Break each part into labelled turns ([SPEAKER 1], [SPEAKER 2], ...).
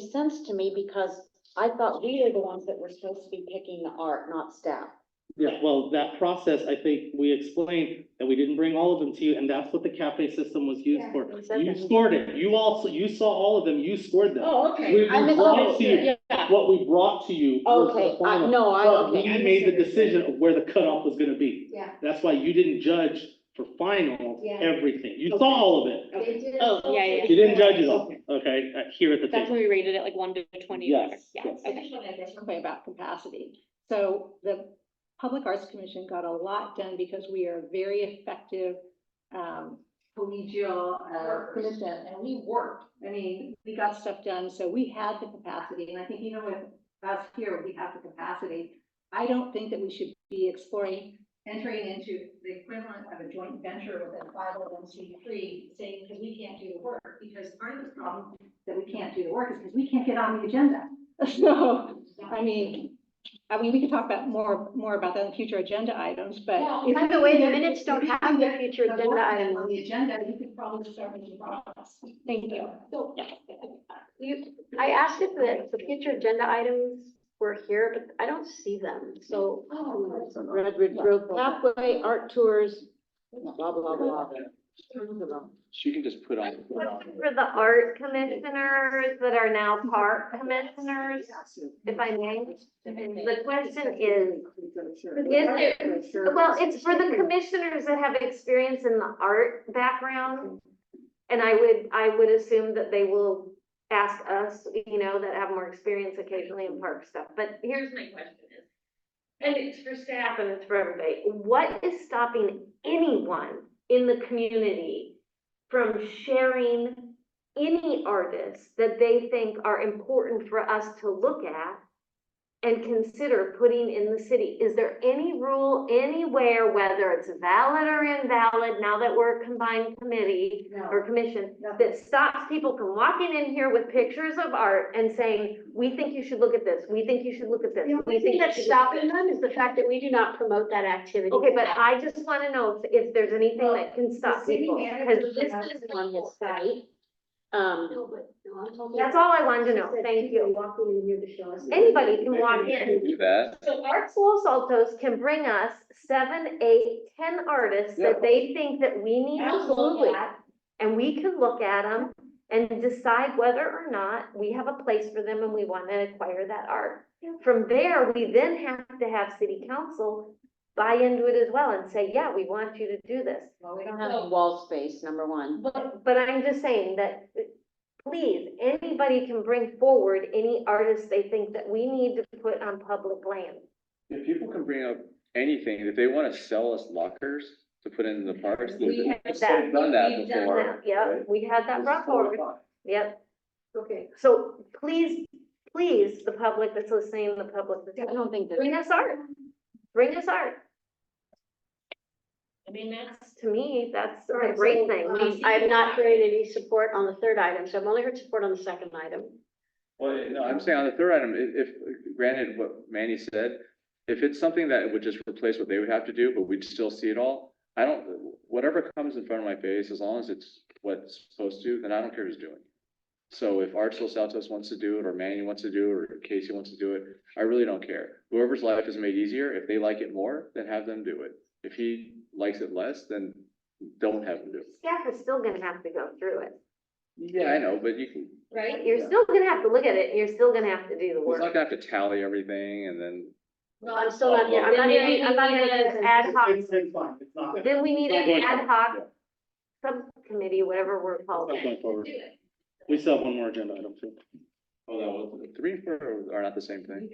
[SPEAKER 1] sense to me because I thought we were the ones that were supposed to be picking the art, not staff.
[SPEAKER 2] Yeah, well, that process, I think we explained that we didn't bring all of them to you, and that's what the cafe system was used
[SPEAKER 3] Yeah,
[SPEAKER 2] for.
[SPEAKER 1] we said
[SPEAKER 2] You
[SPEAKER 1] that.
[SPEAKER 2] scored it. You also, you saw all of them. You scored them.
[SPEAKER 3] Oh,
[SPEAKER 2] We
[SPEAKER 3] okay. I
[SPEAKER 2] we brought to you,
[SPEAKER 1] misunderstood.
[SPEAKER 2] what we brought to you was
[SPEAKER 1] Okay,
[SPEAKER 2] the
[SPEAKER 1] I,
[SPEAKER 2] final.
[SPEAKER 1] no, I,
[SPEAKER 2] But we
[SPEAKER 1] okay.
[SPEAKER 2] made the decision of where the cutoff was gonna be.
[SPEAKER 3] Yeah,
[SPEAKER 2] That's why you didn't judge for final
[SPEAKER 3] Yeah.
[SPEAKER 2] everything. You saw
[SPEAKER 1] Okay.
[SPEAKER 2] all of it.
[SPEAKER 3] they did.
[SPEAKER 4] Oh, yeah, yeah.
[SPEAKER 2] You didn't judge it all, okay, uh, here at the
[SPEAKER 4] That's
[SPEAKER 2] table.
[SPEAKER 4] when we rated it like one to twenty,
[SPEAKER 2] Yes,
[SPEAKER 4] whatever. yeah,
[SPEAKER 2] yes.
[SPEAKER 4] okay.
[SPEAKER 5] way about capacity. So the Public Arts Commission got a lot done because we are a very effective um, collegial uh,
[SPEAKER 3] Workers.
[SPEAKER 5] commission, and we worked. I mean, we got stuff done, so we had the capacity, and I think, you know, with us here, we have the capacity. I don't think that we should be exploring entering into the equivalent of a joint venture with a five oh one C three, saying, because we can't do the work, because part of the problem that we can't do the work is because we can't get on the agenda. So, I mean, I mean, we could talk about more, more about that in future agenda items, but.
[SPEAKER 3] Well,
[SPEAKER 5] if
[SPEAKER 3] by
[SPEAKER 5] we
[SPEAKER 3] the way,
[SPEAKER 5] can
[SPEAKER 3] the
[SPEAKER 5] get-
[SPEAKER 3] minutes
[SPEAKER 5] if
[SPEAKER 3] don't
[SPEAKER 5] we
[SPEAKER 3] have
[SPEAKER 5] can
[SPEAKER 3] the
[SPEAKER 5] get
[SPEAKER 3] future
[SPEAKER 5] the
[SPEAKER 3] agenda
[SPEAKER 5] work done
[SPEAKER 3] items.
[SPEAKER 5] On the agenda, you could probably start with the process. Thank you.
[SPEAKER 3] So,
[SPEAKER 4] Yeah.
[SPEAKER 3] you, I asked if the, the future agenda items were here, but I don't see them, so.
[SPEAKER 1] Oh, Redwood Grove Pathway, Art Tours, blah, blah, blah.
[SPEAKER 6] She can just put on.
[SPEAKER 3] For the art commissioners that are now park commissioners, if I may, the question is, is there, well, it's for the commissioners that have experience in the art background. And I would, I would assume that they will ask us, you know, that have more experience occasionally in park stuff, but here's my question is. And it's for staff and it's for everybody, what is stopping anyone in the community from sharing any artists that they think are important for us to look at and consider putting in the city? Is there any rule anywhere, whether it's valid or invalid, now that we're a combined committee or commission, that stops people from walking in here with pictures of art and saying, we think you should look at this, we think you should look at this,
[SPEAKER 4] The
[SPEAKER 3] we
[SPEAKER 4] only
[SPEAKER 3] think
[SPEAKER 4] thing
[SPEAKER 3] you
[SPEAKER 4] that's
[SPEAKER 3] should look at
[SPEAKER 4] stopping
[SPEAKER 3] this."
[SPEAKER 4] them is the fact that we do not promote that activity.
[SPEAKER 3] Okay, but I just wanna know if, if there's anything that can stop
[SPEAKER 5] city
[SPEAKER 3] people,
[SPEAKER 5] manager
[SPEAKER 3] because this is
[SPEAKER 4] on his
[SPEAKER 3] site.
[SPEAKER 1] Um,
[SPEAKER 4] No, but, no, I'm talking.
[SPEAKER 3] That's all I wanted to know, thank you.
[SPEAKER 4] Walking in here to show us.
[SPEAKER 3] Anybody can walk in.
[SPEAKER 6] Do that.
[SPEAKER 3] So Arts Los Altos can bring us seven, eight, ten artists that they think that we need to
[SPEAKER 1] Absolutely.
[SPEAKER 3] look at. And we can look at them and decide whether or not we have a place for them and we wanna acquire that art. From there, we then have to have city council buy into it as well and say, yeah, we want you to do this.
[SPEAKER 1] well, we don't have any wall space, number one.
[SPEAKER 3] But, but I'm just saying that, uh, please, anybody can bring forward any artists they think that we need to put on public land.
[SPEAKER 6] If people can bring up anything, if they wanna sell us lockers to put in the parks. they've
[SPEAKER 5] We have
[SPEAKER 3] that.
[SPEAKER 6] Done that
[SPEAKER 5] We've done
[SPEAKER 6] before.
[SPEAKER 3] Yeah,
[SPEAKER 6] right?
[SPEAKER 3] we had that brought forward, yep.
[SPEAKER 5] Okay.
[SPEAKER 3] So please, please, the public that's listening, the public
[SPEAKER 1] I
[SPEAKER 3] that's,
[SPEAKER 1] don't think that.
[SPEAKER 3] bring us art, bring us art.
[SPEAKER 7] I mean, that's.
[SPEAKER 3] To me, that's
[SPEAKER 7] All
[SPEAKER 3] a
[SPEAKER 7] right,
[SPEAKER 3] great
[SPEAKER 7] so,
[SPEAKER 3] thing.
[SPEAKER 7] um, I have not heard any support on the third item, so I've only heard support on the second item.
[SPEAKER 6] Well, no, I'm saying on the third item, i- if, granted what Manny said, if it's something that would just replace what they would have to do, but we'd still see it all. I don't, whatever comes in front of my face, as long as it's what's supposed to, then I don't care who's doing. it. So if Arch Los Altos wants to do it, or Manny wants to do it, or Casey wants to do it, I really don't care. Whoever's life is made easier, if they like it more, then have them do it. If he likes it less, then don't have him do it.
[SPEAKER 3] Staff is still gonna have to go through it,
[SPEAKER 6] Yeah, I know, but you can,
[SPEAKER 3] right? You're
[SPEAKER 6] Yeah.
[SPEAKER 3] still gonna have to look at it, and you're still gonna have to do the
[SPEAKER 6] he's
[SPEAKER 3] work.
[SPEAKER 6] not gonna have to tally everything and then
[SPEAKER 7] No, I'm still not there. I'm not
[SPEAKER 3] Then
[SPEAKER 7] gonna,
[SPEAKER 3] we-
[SPEAKER 7] I'm not gonna
[SPEAKER 3] then we
[SPEAKER 7] just
[SPEAKER 3] need
[SPEAKER 7] add
[SPEAKER 3] ad hoc.
[SPEAKER 2] It's- it's fine, it's not-
[SPEAKER 3] Then we need an
[SPEAKER 2] Right.
[SPEAKER 3] ad hoc subcommittee, whatever we're called.
[SPEAKER 2] it's not going forward. We still have one more agenda item too.
[SPEAKER 6] Oh, that was. Three and four are not the same thing.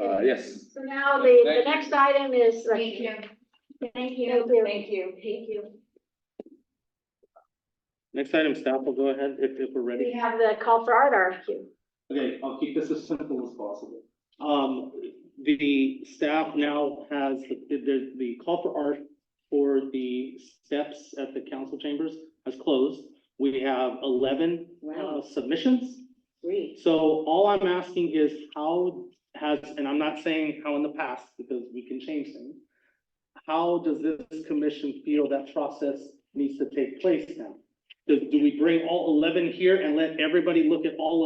[SPEAKER 6] Uh, yes.
[SPEAKER 7] So now the, the
[SPEAKER 6] Thank you.
[SPEAKER 7] next item is.
[SPEAKER 5] Thank you.
[SPEAKER 7] Thank you.
[SPEAKER 5] Thank you.
[SPEAKER 7] Thank you.
[SPEAKER 2] Next item, staff will go ahead if, if we're ready.
[SPEAKER 7] We have the call for art RFQ.
[SPEAKER 2] Okay, I'll keep this as simple as possible. Um, the staff now has the, the, the call for art for the steps at the council chambers has closed. We have eleven uh,
[SPEAKER 1] Wow.
[SPEAKER 2] submissions.
[SPEAKER 1] Great.
[SPEAKER 2] So all I'm asking is how has, and I'm not saying how in the past, because we can change things. How does this commission feel that process needs to take place now? Do, do we bring all eleven here and let everybody look at all